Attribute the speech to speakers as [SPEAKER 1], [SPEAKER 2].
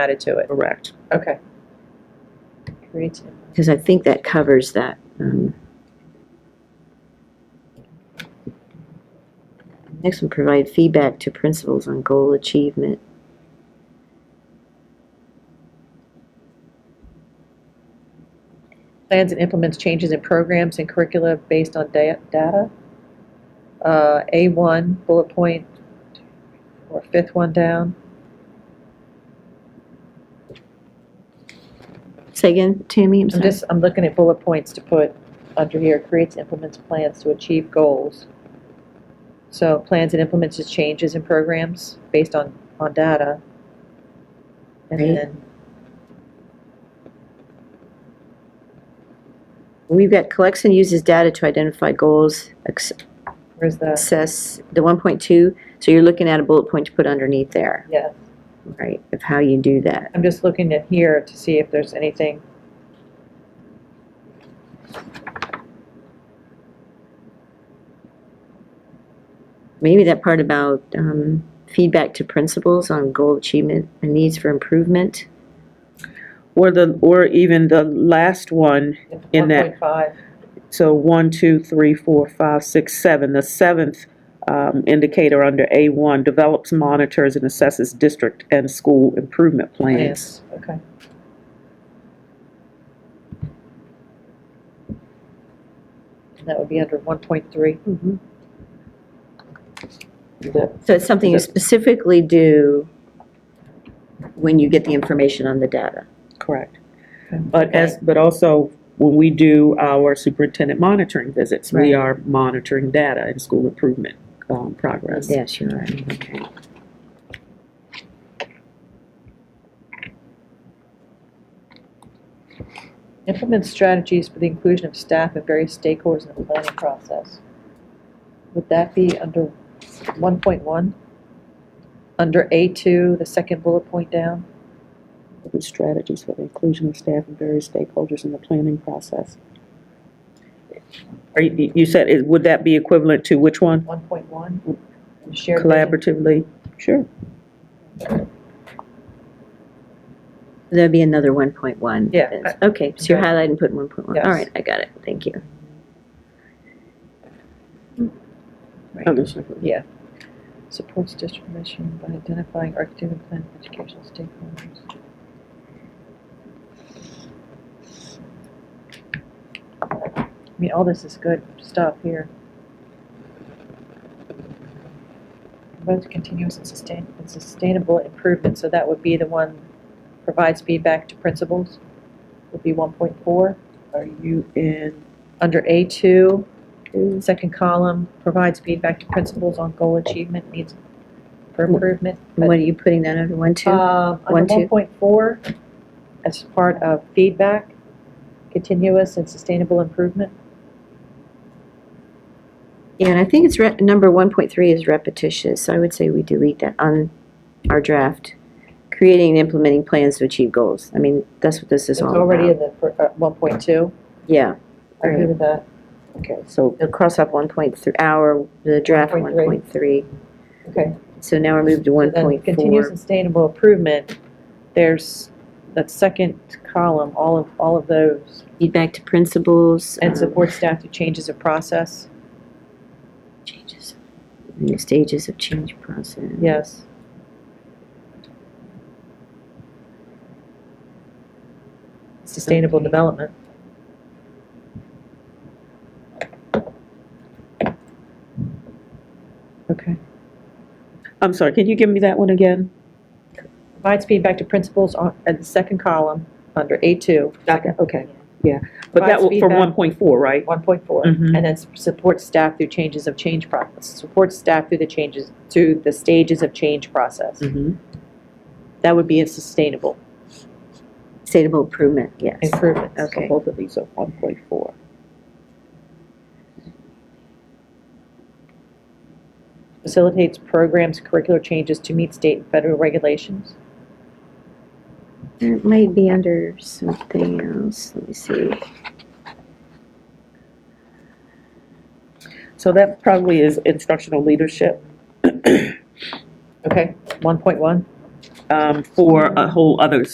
[SPEAKER 1] added to it.
[SPEAKER 2] Correct.
[SPEAKER 1] Okay. Creative.
[SPEAKER 3] Because I think that covers that. um, Next one, provide feedback to principals on goal achievement.
[SPEAKER 1] Plans and implements changes in programs and curricula based on da- data. Uh, A1 bullet point, or fifth one down.
[SPEAKER 3] Say again, Tammy, I'm
[SPEAKER 1] I'm
[SPEAKER 3] sorry.
[SPEAKER 1] just, I'm looking at bullet points to put under here, creates, implements plans to achieve goals. So plans and implements is changes in programs based on, on data. And
[SPEAKER 3] Right.
[SPEAKER 1] then,
[SPEAKER 3] We've got collects and uses data to identify goals, ex-
[SPEAKER 1] where's the,
[SPEAKER 3] assess the 1.2. So you're looking at a bullet point to put underneath there,
[SPEAKER 1] yeah,
[SPEAKER 3] right, of how you do that.
[SPEAKER 1] I'm just looking at here to see if there's anything.
[SPEAKER 3] Maybe that part about um, feedback to principals on goal achievement and needs for improvement.
[SPEAKER 2] Or the, or even the last one, In that-
[SPEAKER 1] 1.5,
[SPEAKER 2] so one, two, three, four, five, six, seven, the seventh um, indicator under A1, develops, monitors, and assesses district and school improvement plans.
[SPEAKER 1] yes, okay. And That would be under 1.3.
[SPEAKER 3] So it's something you specifically do when you get the information on the data.
[SPEAKER 2] Correct. But as, but also, when we do our superintendent monitoring visits, we
[SPEAKER 3] Right.
[SPEAKER 2] are monitoring data and school improvement um, progress.
[SPEAKER 3] Yes, you're right, okay.
[SPEAKER 1] Implement strategies for the inclusion of staff and various stakeholders in the planning process. Would that be under 1.1? Under A2, the second bullet point down?
[SPEAKER 2] Different strategies for the inclusion of staff and various stakeholders in the planning process. Are you, you said, it- would that be equivalent to which one?
[SPEAKER 1] 1.1? Shared vision.
[SPEAKER 2] Collaboratively? Sure.
[SPEAKER 3] That'd be another 1.1.
[SPEAKER 1] Yeah,
[SPEAKER 3] That's- Okay, so you're
[SPEAKER 1] okay.
[SPEAKER 3] highlighting, putting 1.1. All
[SPEAKER 1] Yes.
[SPEAKER 3] right, I got it, thank you.
[SPEAKER 1] Yeah. Supports district mission by identifying architecture and plan for educational stakeholders. I mean, all this is good stuff here. Both continuous and sustain, and sustainable improvement, so that would be the one provides feedback to principals, would be one point four.
[SPEAKER 2] Are you in?
[SPEAKER 1] Under A2, second column, provides feedback to principals on goal achievement needs for improvement.
[SPEAKER 3] And what are you putting that under 1.2?
[SPEAKER 1] Um,
[SPEAKER 3] One,
[SPEAKER 1] Under
[SPEAKER 3] two.
[SPEAKER 1] 1.4, as part of feedback, continuous and sustainable improvement.
[SPEAKER 3] Yeah, and I think it's, re- number 1.3 is repetitious, so I would say we delete that on our draft. Creating and implementing plans to achieve goals. I mean, that's what this is
[SPEAKER 1] It's
[SPEAKER 3] all
[SPEAKER 1] already in
[SPEAKER 3] about.
[SPEAKER 1] the fir- uh, 1.2.
[SPEAKER 3] Yeah,
[SPEAKER 1] I agree with that.
[SPEAKER 2] Okay, so
[SPEAKER 3] it'll cross off 1.3, our, the draft
[SPEAKER 1] 1.3.
[SPEAKER 3] 1.3.
[SPEAKER 1] Okay.
[SPEAKER 3] So now we're moved to
[SPEAKER 1] So then
[SPEAKER 3] 1.4.
[SPEAKER 1] Continuous and sustainable improvement, there's that second column, all of, all of those,
[SPEAKER 3] Feedback to principals.
[SPEAKER 1] and
[SPEAKER 3] um,
[SPEAKER 1] support staff through changes of process.
[SPEAKER 3] Changes, in the stages of change process.
[SPEAKER 1] Yes. Sustainable
[SPEAKER 3] Okay.
[SPEAKER 1] development. Okay.
[SPEAKER 2] I'm sorry, can you give me that one again?
[SPEAKER 1] Provides feedback to principals on, at the second column, under A2,
[SPEAKER 2] Okay, yeah. But that, will- for
[SPEAKER 1] Provides feedback.
[SPEAKER 2] 1.4, right?
[SPEAKER 1] 1.4,
[SPEAKER 2] Mhm.
[SPEAKER 1] and then s- supports staff through changes of change process, supports staff through the changes, through the stages of change process.
[SPEAKER 2] Mhm.
[SPEAKER 1] That would be a sustainable
[SPEAKER 3] Sustainable improvement, yes.
[SPEAKER 1] improvement.
[SPEAKER 3] Okay.
[SPEAKER 2] So both of these are 1.4.
[SPEAKER 1] facilitates programs, curricular changes to meet state and federal regulations.
[SPEAKER 3] It might be under something else, let me see.
[SPEAKER 2] So that probably is instructional leadership.
[SPEAKER 1] Okay. 1.1,
[SPEAKER 2] um, for a whole other